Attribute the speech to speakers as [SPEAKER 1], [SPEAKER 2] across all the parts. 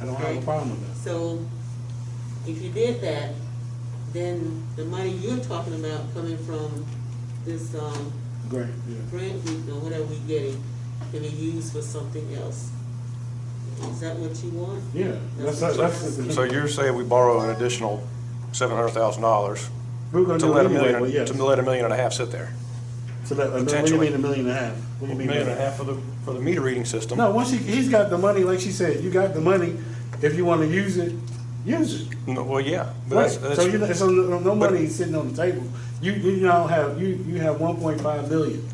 [SPEAKER 1] I don't have a
[SPEAKER 2] Okay.
[SPEAKER 1] problem with that.
[SPEAKER 2] So if you did that, then the money you're talking about coming from this, um,
[SPEAKER 1] Great, yeah.
[SPEAKER 2] grant we, or whatever we getting, can be used for something else. Is that what you want?
[SPEAKER 1] Yeah, that's, that's. the-
[SPEAKER 3] So you're saying we borrow an additional seven hundred thousand dollars
[SPEAKER 1] We're gonna
[SPEAKER 3] to
[SPEAKER 1] do
[SPEAKER 3] let
[SPEAKER 1] it
[SPEAKER 3] a
[SPEAKER 1] anyway, but
[SPEAKER 3] million,
[SPEAKER 1] yes.
[SPEAKER 3] to let a million and a half sit there?
[SPEAKER 1] So that, what do you
[SPEAKER 3] potentially.
[SPEAKER 1] mean a million and a half? What do
[SPEAKER 3] A
[SPEAKER 1] you mean?
[SPEAKER 3] million
[SPEAKER 1] by
[SPEAKER 3] and a
[SPEAKER 1] that?
[SPEAKER 3] half for the, for the meter reading system?
[SPEAKER 1] No, once you, he's got the money, like she said, you got the money, if you wanna use it, use it.
[SPEAKER 3] No, Well, yeah, but that's,
[SPEAKER 1] Right. So you,
[SPEAKER 3] that's,
[SPEAKER 1] so no, no
[SPEAKER 3] but-
[SPEAKER 1] money is sitting on the table. You, you now have, you, you have one point five million.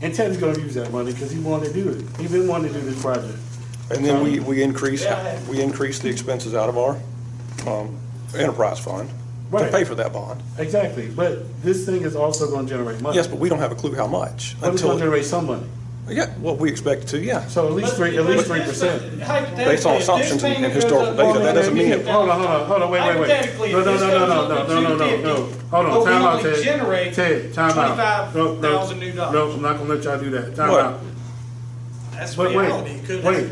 [SPEAKER 1] And Ted's gonna use that money, cause he wanted to do it. He been wanting to do this project.
[SPEAKER 3] and then we, we increase, we increase the expenses out of our, um, enterprise fund to
[SPEAKER 1] Right.
[SPEAKER 3] pay for that bond.
[SPEAKER 1] Exactly, but this thing is also gonna generate money.
[SPEAKER 3] Yes, but we don't have a clue how much
[SPEAKER 1] But it's
[SPEAKER 3] until,
[SPEAKER 1] gonna generate some money.
[SPEAKER 3] yeah, what we expect to, yeah.
[SPEAKER 1] So at least three, at least three percent.
[SPEAKER 3] Based on assumptions and historical data, that doesn't mean it-
[SPEAKER 1] Hold on, hold on, hold on, wait, wait, wait.
[SPEAKER 4] Hypothetically,
[SPEAKER 1] No,
[SPEAKER 4] if
[SPEAKER 1] no,
[SPEAKER 4] this
[SPEAKER 1] no,
[SPEAKER 4] goes
[SPEAKER 1] no,
[SPEAKER 4] up
[SPEAKER 1] no, no,
[SPEAKER 4] to
[SPEAKER 1] no, no, no.
[SPEAKER 4] 250,
[SPEAKER 1] Hold on,
[SPEAKER 4] but we
[SPEAKER 1] time out,
[SPEAKER 4] only
[SPEAKER 1] Ted.
[SPEAKER 4] generate
[SPEAKER 1] Ted, time out. No, no,
[SPEAKER 4] 25,000 new dollars.
[SPEAKER 1] No, I'm not gonna let y'all do that. Time
[SPEAKER 3] What?
[SPEAKER 1] out.
[SPEAKER 4] That's
[SPEAKER 1] But
[SPEAKER 4] reality.
[SPEAKER 1] wait,
[SPEAKER 4] Could-
[SPEAKER 1] wait,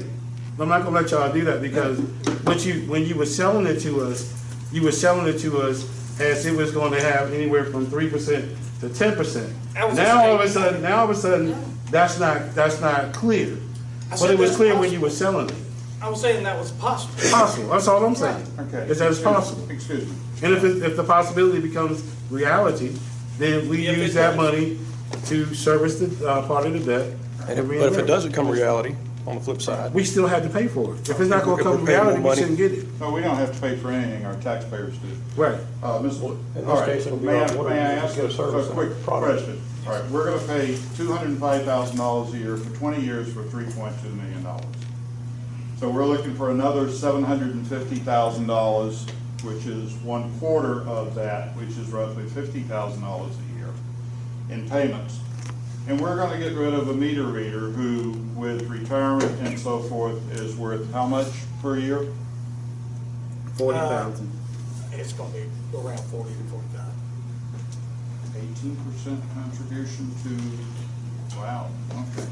[SPEAKER 1] I'm not gonna let y'all do that because what you, when you were selling it to us, you were selling it to us as it was gonna have anywhere from three percent to ten percent.
[SPEAKER 4] That was a
[SPEAKER 1] Now all of a
[SPEAKER 4] statement.
[SPEAKER 1] sudden, now all of a sudden, that's not, that's not clear.
[SPEAKER 4] I
[SPEAKER 1] But
[SPEAKER 4] said
[SPEAKER 1] it was
[SPEAKER 4] that's
[SPEAKER 1] clear when you were selling it.
[SPEAKER 4] I was saying that was possible.
[SPEAKER 1] Possible, that's all I'm saying.
[SPEAKER 5] Okay.
[SPEAKER 1] Is that it's possible.
[SPEAKER 5] Excuse me.
[SPEAKER 1] And if, it- if the possibility becomes reality, then we
[SPEAKER 4] If it
[SPEAKER 1] use that
[SPEAKER 4] does.
[SPEAKER 1] money to service the, uh, part of the debt. and
[SPEAKER 3] And if- But if it
[SPEAKER 1] reimburse.
[SPEAKER 3] doesn't come reality, on the flip side,
[SPEAKER 1] we still had to pay for it. If it's not gonna
[SPEAKER 3] If we're
[SPEAKER 1] come
[SPEAKER 3] paying more
[SPEAKER 1] reality, we
[SPEAKER 3] money-
[SPEAKER 1] shouldn't get it.
[SPEAKER 5] No, we don't have to pay for anything, our taxpayers do.
[SPEAKER 1] Right.
[SPEAKER 5] Uh, Ms. All
[SPEAKER 3] in this
[SPEAKER 5] right,
[SPEAKER 3] case, it'll be
[SPEAKER 5] may
[SPEAKER 3] our
[SPEAKER 5] I,
[SPEAKER 3] water
[SPEAKER 5] may I
[SPEAKER 3] and
[SPEAKER 5] ask a
[SPEAKER 3] good service
[SPEAKER 5] a quick
[SPEAKER 3] and product.
[SPEAKER 5] question? All right, we're gonna pay two hundred and five thousand dollars a year for twenty years for three point two million dollars. So we're looking for another seven hundred and fifty thousand dollars, which is one quarter of that, which is roughly fifty thousand dollars a year in payments. And we're gonna get rid of a meter reader who, with retirement and so forth, is worth how much per year?
[SPEAKER 1] Forty thousand.
[SPEAKER 4] It's gonna be around forty to forty-five.
[SPEAKER 5] Eighteen percent contribution to, wow, okay.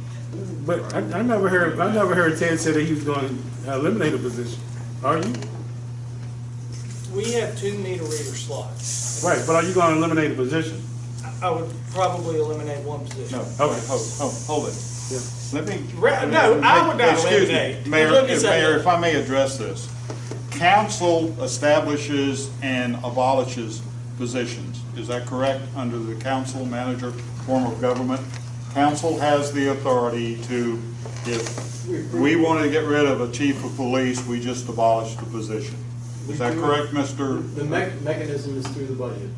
[SPEAKER 1] But I, I never heard, I never heard Ted say that he was gonna eliminate a position. Are you?
[SPEAKER 4] We have two meter reader slots.
[SPEAKER 1] Right, but are you gonna eliminate a position?
[SPEAKER 4] I- I would probably eliminate one position.
[SPEAKER 5] No, hold, hold, hold, hold it. Let me.
[SPEAKER 4] Ra- no, I would not
[SPEAKER 5] Excuse me,
[SPEAKER 4] eliminate.
[SPEAKER 5] Mayor,
[SPEAKER 4] Let me say
[SPEAKER 5] Mayor,
[SPEAKER 4] that.
[SPEAKER 5] if I may address this. Council establishes and abolishes positions. Is that correct? Under the council manager form of government? Council has the authority to, if we wanted to get rid of a chief of police, we just abolish the position. Is that correct, Mr.?
[SPEAKER 6] The mech- mechanism is through the budget.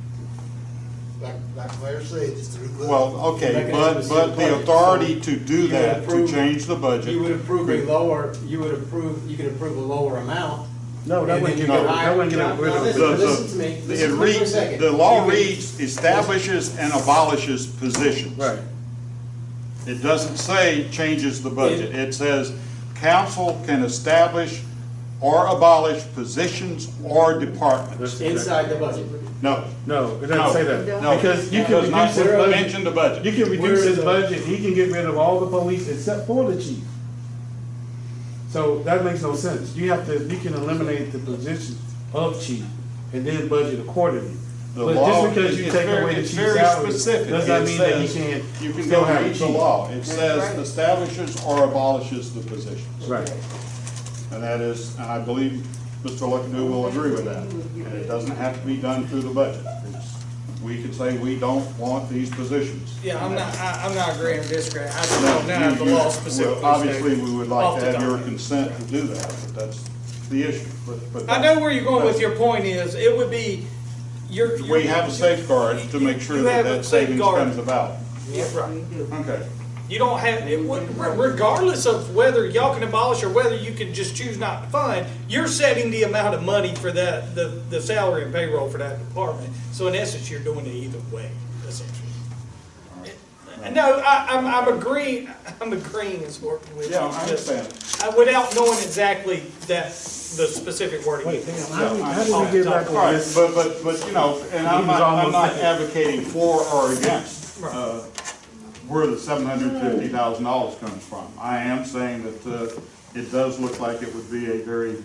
[SPEAKER 7] Like, like Mayor said, it's through.
[SPEAKER 5] Well, okay, but,
[SPEAKER 6] Mechanism
[SPEAKER 5] but
[SPEAKER 6] is
[SPEAKER 5] the
[SPEAKER 6] the budget, so
[SPEAKER 5] authority to do
[SPEAKER 6] you
[SPEAKER 5] that, to
[SPEAKER 6] approve-
[SPEAKER 5] change the budget.
[SPEAKER 6] You would approve a lower, you would approve, you could approve a lower amount.
[SPEAKER 1] No, that
[SPEAKER 6] and
[SPEAKER 1] wouldn't
[SPEAKER 6] then
[SPEAKER 1] get,
[SPEAKER 6] you
[SPEAKER 1] it-
[SPEAKER 6] could
[SPEAKER 1] that
[SPEAKER 6] hire-
[SPEAKER 1] wouldn't
[SPEAKER 6] No,
[SPEAKER 1] get rid
[SPEAKER 6] no,
[SPEAKER 1] of
[SPEAKER 6] listen-
[SPEAKER 5] The- the-
[SPEAKER 6] Listen to me, listen
[SPEAKER 5] It
[SPEAKER 6] to me for a
[SPEAKER 5] reads,
[SPEAKER 6] second.
[SPEAKER 5] the law
[SPEAKER 6] You could-
[SPEAKER 5] reads establishes and abolishes positions.
[SPEAKER 1] Right.
[SPEAKER 5] It doesn't say changes the budget. It says council can establish or abolish positions or departments.
[SPEAKER 6] Inside the budget.
[SPEAKER 5] No.
[SPEAKER 1] No, it
[SPEAKER 5] no,
[SPEAKER 1] doesn't say that.
[SPEAKER 5] No,
[SPEAKER 1] Because you
[SPEAKER 5] it
[SPEAKER 1] can
[SPEAKER 5] does
[SPEAKER 1] reduce his
[SPEAKER 5] not mention
[SPEAKER 1] budget.
[SPEAKER 5] the
[SPEAKER 1] You
[SPEAKER 5] budget.
[SPEAKER 1] can reduce his
[SPEAKER 6] Where-
[SPEAKER 1] budget, he can get rid of all the police except for the chief. So that makes no sense. You have to, you can eliminate the position of chief and then budget accordingly.
[SPEAKER 5] The
[SPEAKER 1] But
[SPEAKER 5] law-
[SPEAKER 1] just because you
[SPEAKER 5] it's
[SPEAKER 1] take
[SPEAKER 5] very-
[SPEAKER 1] away the
[SPEAKER 5] it's
[SPEAKER 1] chief's
[SPEAKER 5] very
[SPEAKER 1] salary,
[SPEAKER 5] specific.
[SPEAKER 1] does not
[SPEAKER 5] It
[SPEAKER 1] mean that he
[SPEAKER 5] says
[SPEAKER 1] can't
[SPEAKER 5] You can
[SPEAKER 1] still
[SPEAKER 5] go
[SPEAKER 1] have a
[SPEAKER 5] read the
[SPEAKER 1] chief.
[SPEAKER 5] law. It says establishes or abolishes the positions.
[SPEAKER 1] Right.
[SPEAKER 5] And that is, and I believe Mr. Luckado will agree with that. And it doesn't have to be done through the budget. It's- We could say we don't want these positions.
[SPEAKER 4] Yeah, I'm not, I, I'm not agreeing or disagreeing. I just
[SPEAKER 5] Now,
[SPEAKER 4] don't know how the
[SPEAKER 5] you- you-
[SPEAKER 4] law
[SPEAKER 5] well,
[SPEAKER 4] specifically.
[SPEAKER 5] Obviously,
[SPEAKER 4] states.
[SPEAKER 5] we would
[SPEAKER 4] Off
[SPEAKER 5] like
[SPEAKER 4] the
[SPEAKER 5] to have your
[SPEAKER 4] top.
[SPEAKER 5] consent to do that, but that's the issue. But- but
[SPEAKER 4] I
[SPEAKER 5] that-
[SPEAKER 4] know where you're going with your point is, it would be, your.
[SPEAKER 5] We have a safeguard to make sure
[SPEAKER 4] You
[SPEAKER 5] that
[SPEAKER 4] have a
[SPEAKER 5] that savings
[SPEAKER 4] safeguard.
[SPEAKER 5] comes about.
[SPEAKER 4] Yeah, right.
[SPEAKER 5] Okay.
[SPEAKER 4] You don't have, it would- regardless of whether y'all can abolish or whether you can just choose not to fund, you're setting the amount of money for that, the, the salary and payroll for that department. So in essence, you're doing it either way, essentially. No, I, I'm, I'm agreeing, I'm agreeing is what. with
[SPEAKER 5] Yeah, I
[SPEAKER 4] you, just-
[SPEAKER 5] understand.
[SPEAKER 4] uh, Without knowing exactly that, the specific wording.
[SPEAKER 1] Wait, damn, how did,
[SPEAKER 5] Yeah, I-
[SPEAKER 1] how did we get back
[SPEAKER 5] All
[SPEAKER 1] on
[SPEAKER 5] right,
[SPEAKER 1] this?
[SPEAKER 5] but, but, but, you know, and
[SPEAKER 1] He
[SPEAKER 5] I'm
[SPEAKER 1] was
[SPEAKER 5] not, I'm
[SPEAKER 1] almost
[SPEAKER 5] not
[SPEAKER 1] there.
[SPEAKER 5] advocating for or against,
[SPEAKER 4] Right.
[SPEAKER 5] uh, where the seven hundred fifty thousand dollars comes from. I am saying that, uh, it does look like it would be a very